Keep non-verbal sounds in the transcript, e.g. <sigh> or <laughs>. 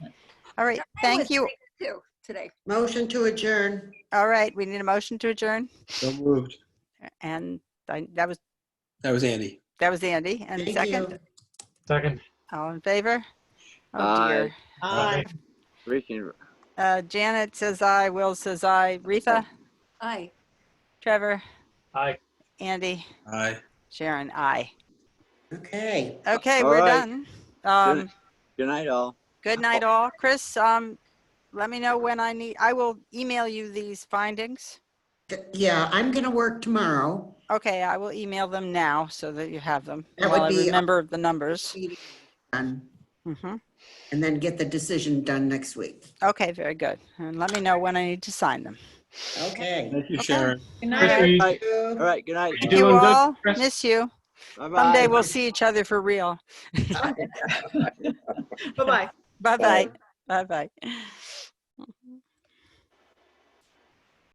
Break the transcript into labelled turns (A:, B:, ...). A: All right, thank you.
B: Two today.
C: Motion to adjourn.
A: All right, we need a motion to adjourn.
D: So moved.
A: And I- that was,
D: That was Andy.
A: that was Andy. And
C: Thank
A: second,
C: you.
E: Second.
A: all in favor? Oh
F: Aye.
A: dear.
C: Aye.
F: Freaking
A: Uh, Janet says aye, Will says aye, Retha,
B: Aye.
A: Trevor,
E: Aye.
A: Andy,
D: Aye.
A: Sharon, aye.
C: Okay.
A: Okay,
F: All
A: we're
F: right.
A: done. Um,
F: good night, all.
A: Good night, all. Chris, um, let me know when I need, I will email you these findings.
C: Yeah, I'm going to work tomorrow.
A: Okay, I will email them now so that you have them.
C: That
A: while I
C: would be-
A: Remember the numbers.
C: um,
A: Mhm.
C: And then get the decision done next week.
A: Okay, very good. And let me know when I need to sign them.
C: Okay.
D: Thank you,
A: Okay.
D: Sharon.
E: Chris, are you-
F: Bye. All right, good night.
E: You
A: Thank you
E: doing good,
A: all.
E: Chris?
A: Miss you.
F: Bye-bye.
A: Someday we'll see each other for real. <laughs>
B: Bye-bye.
A: Bye-bye. Bye-bye.